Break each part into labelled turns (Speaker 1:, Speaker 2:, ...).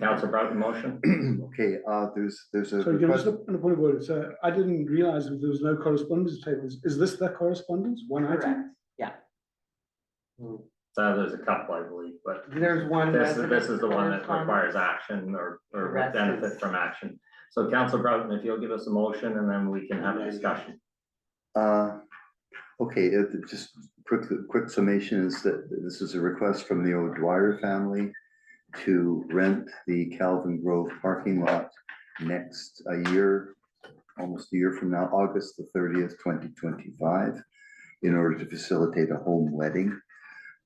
Speaker 1: Council brought the motion?
Speaker 2: Okay, uh, there's, there's a
Speaker 3: So just
Speaker 2: request,
Speaker 3: a a point of order, so I didn't realize that there was no correspondence tables. Is this the correspondence, one item?
Speaker 4: Correct, yeah.
Speaker 1: So Uh, there's a couple, I believe, but
Speaker 5: There's one.
Speaker 1: this, is- this is the one that
Speaker 5: resident
Speaker 1: requires action or, or would
Speaker 4: Rest is-
Speaker 1: benefit from action. So Council Broughton, if you'll give us a motion and then we can have a discussion.
Speaker 2: uh, okay, it, it just quick, quick summation is that this is a request from the O'Dwyer family to rent the Calvin Grove parking lot next, a year, almost a year from now, August the thirtieth, twenty twenty-five, in order to facilitate a home wedding.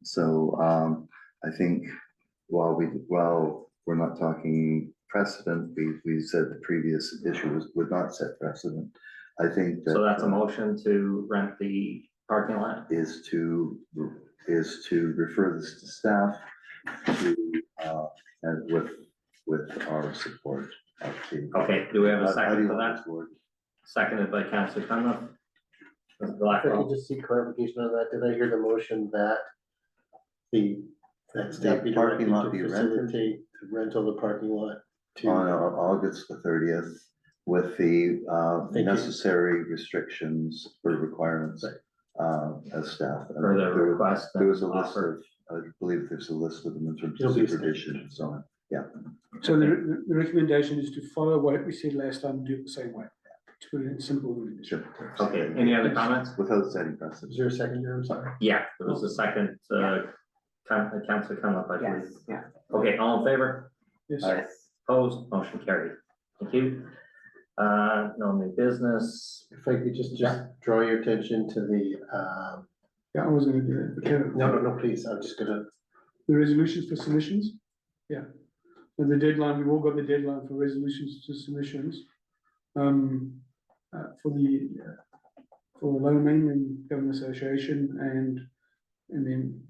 Speaker 2: So, um, I think while we, while we're not talking precedent, we, we said the previous issue was, would not set precedent. I think that.
Speaker 1: So that's a motion to rent the parking lot.
Speaker 2: Is to, is to refer this to staff to, uh, and with, with our support of the.
Speaker 1: Okay, Oh, do we have a
Speaker 2: Uh, How- how do
Speaker 1: second
Speaker 2: you
Speaker 1: for
Speaker 2: want
Speaker 1: that?
Speaker 2: this word?
Speaker 1: Seconded by Council Conlon. Ms.
Speaker 5: If I could
Speaker 1: Blackwell,
Speaker 5: just see clarification on that, did I hear the motion that the, that staff be
Speaker 2: The parking
Speaker 5: directed
Speaker 2: lot be
Speaker 5: to
Speaker 2: rented?
Speaker 5: facilitate the rental of the parking lot to?
Speaker 2: On uh, August the thirtieth with the, uh,
Speaker 5: Thank you.
Speaker 2: necessary restrictions or requirements, uh, as staff. And
Speaker 1: for the
Speaker 2: there-
Speaker 1: request.
Speaker 2: There was a
Speaker 1: and
Speaker 2: list
Speaker 1: offer.
Speaker 2: of, I believe there's a list of them in terms of
Speaker 5: It'll be stated.
Speaker 2: supervision and so on.
Speaker 3: So the, the- the recommendation is to follow what we said last time, do it the same way, to put it in simple language.
Speaker 2: Sure.
Speaker 1: Okay, any other comments?
Speaker 2: Without setting precedent.
Speaker 5: Is there a second here? I'm sorry.
Speaker 1: Yeah, there was a second, uh, Coun- Council Conlon, I
Speaker 4: Yes,
Speaker 1: believe.
Speaker 4: yeah.
Speaker 1: Okay, all in favor?
Speaker 3: Yes,
Speaker 2: Aye.
Speaker 1: Opposed, motion carried. Thank you. Uh, no new business.
Speaker 5: If I could just, just draw your attention to the, um,
Speaker 3: yeah, I was gonna do that, okay,
Speaker 5: no, no, no, please, I'm just gonna,
Speaker 3: the resolutions for submissions, yeah. And the deadline, we've all got the deadline for resolutions to submissions. Um, uh, for the, uh, for the Lower Mainland Government Association and, and then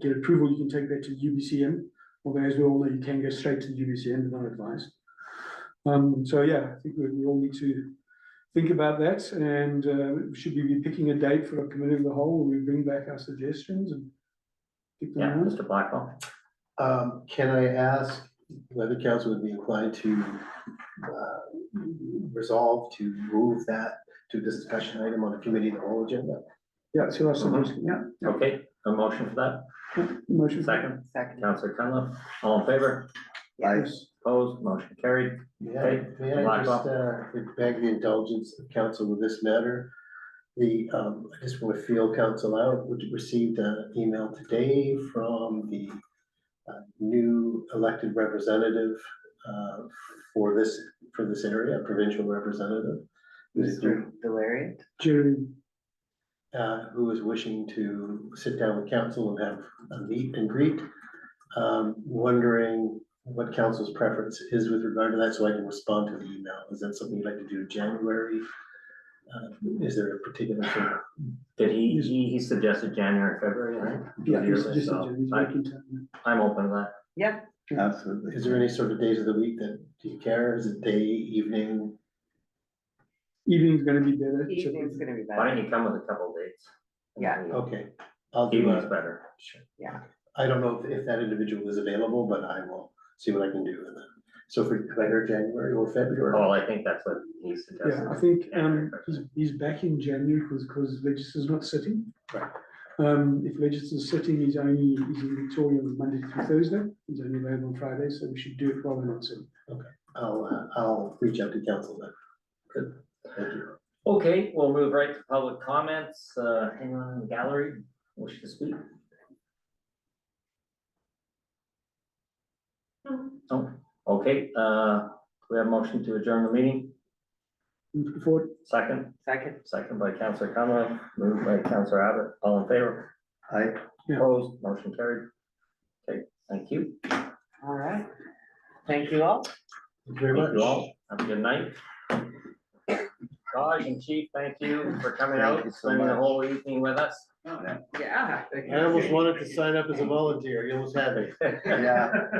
Speaker 3: get approval, you can take that to UBCM. Although as we all know, you can go straight to the UBCM, not advised. Um, so yeah, I think we, we all need to think about that and, uh, should we be picking a date for a committee of the whole? where We bring back our suggestions and. pick them
Speaker 1: Yeah,
Speaker 3: out?
Speaker 1: Mr. Blackwell.
Speaker 5: um, can I ask whether council would be inclined to, uh, resolve to move that to this discussion item on the committee of the whole agenda?
Speaker 3: Yeah, so that's the motion, yeah, yeah.
Speaker 1: Okay, a motion for that.
Speaker 3: motion.
Speaker 1: Second,
Speaker 4: Second.
Speaker 1: Councillor Conlon, all in favor?
Speaker 2: I,
Speaker 3: Yes.
Speaker 1: Opposed, motion carried.
Speaker 5: May I,
Speaker 1: Okay,
Speaker 5: may I
Speaker 1: Mark.
Speaker 5: just, uh, beg the indulgence of council with this matter? The, um, I just want to feel council out, we received an email today from the uh, new elected representative, uh, for this, for this area, provincial representative. who's-
Speaker 4: Mr. Delarry?
Speaker 3: Jerry,
Speaker 5: uh, who is wishing to sit down with council and have a meet and greet. Um, wondering what council's preference is with regard to that, so I can respond to the email. Is that something you'd like to do in January? Uh, is there a particular, thing?
Speaker 1: Did he, he, he suggested January, February, I think?
Speaker 3: yeah, he's
Speaker 1: Yearly,
Speaker 3: just,
Speaker 1: so
Speaker 3: he's
Speaker 1: I-
Speaker 3: making time.
Speaker 1: I'm open to that.
Speaker 4: Yeah,
Speaker 2: absolutely.
Speaker 5: is there any sort of days of the week that do you care? Is it day, evening?
Speaker 3: Evening's gonna be better. so-
Speaker 4: evening's gonna be
Speaker 1: Why
Speaker 4: better.
Speaker 1: don't you come with a couple dates?
Speaker 4: Yeah.
Speaker 5: Okay, I'll do
Speaker 1: Evening's
Speaker 5: a,
Speaker 1: better.
Speaker 5: I don't know if- if that individual is available, but I will see what I can do. And then- So for, could I hear January or February?
Speaker 1: Paul, I think that's what he suggested.
Speaker 3: Yeah, I think, um,
Speaker 1: January, February.
Speaker 3: he's, he's back in January because, because Legisla's not sitting.
Speaker 5: Right.
Speaker 3: Um, if Legisla's sitting, he's only, he's in Victoria on Monday through Thursday, he's only available on Friday, so we should do it while we're not sitting.
Speaker 5: I'll, uh, I'll reach out to council then.
Speaker 1: Good.
Speaker 5: Thank you.
Speaker 1: Okay, we'll move right to public comments. Uh, anyone in the gallery wish to speak? No. Oh, okay, uh, we have a motion to adjourn the meeting.
Speaker 3: Move forward.
Speaker 1: Second,
Speaker 4: Second.
Speaker 1: second by Councillor Conlon, moved by Councillor Abbott, all in favor,
Speaker 2: I,
Speaker 3: Yeah.
Speaker 1: opposed, motion carried. Okay, thank you.
Speaker 4: All right. Thank you all.
Speaker 5: Thank you very
Speaker 1: Thank
Speaker 5: much.
Speaker 1: you all. Have a good night. Raj and Chief, thank you for coming
Speaker 2: Thank
Speaker 1: out,
Speaker 2: you so
Speaker 1: spending the
Speaker 2: much.
Speaker 1: whole evening with us.
Speaker 4: Yeah.
Speaker 5: I almost wanted to sign up as a volunteer, you almost had me.
Speaker 2: yeah.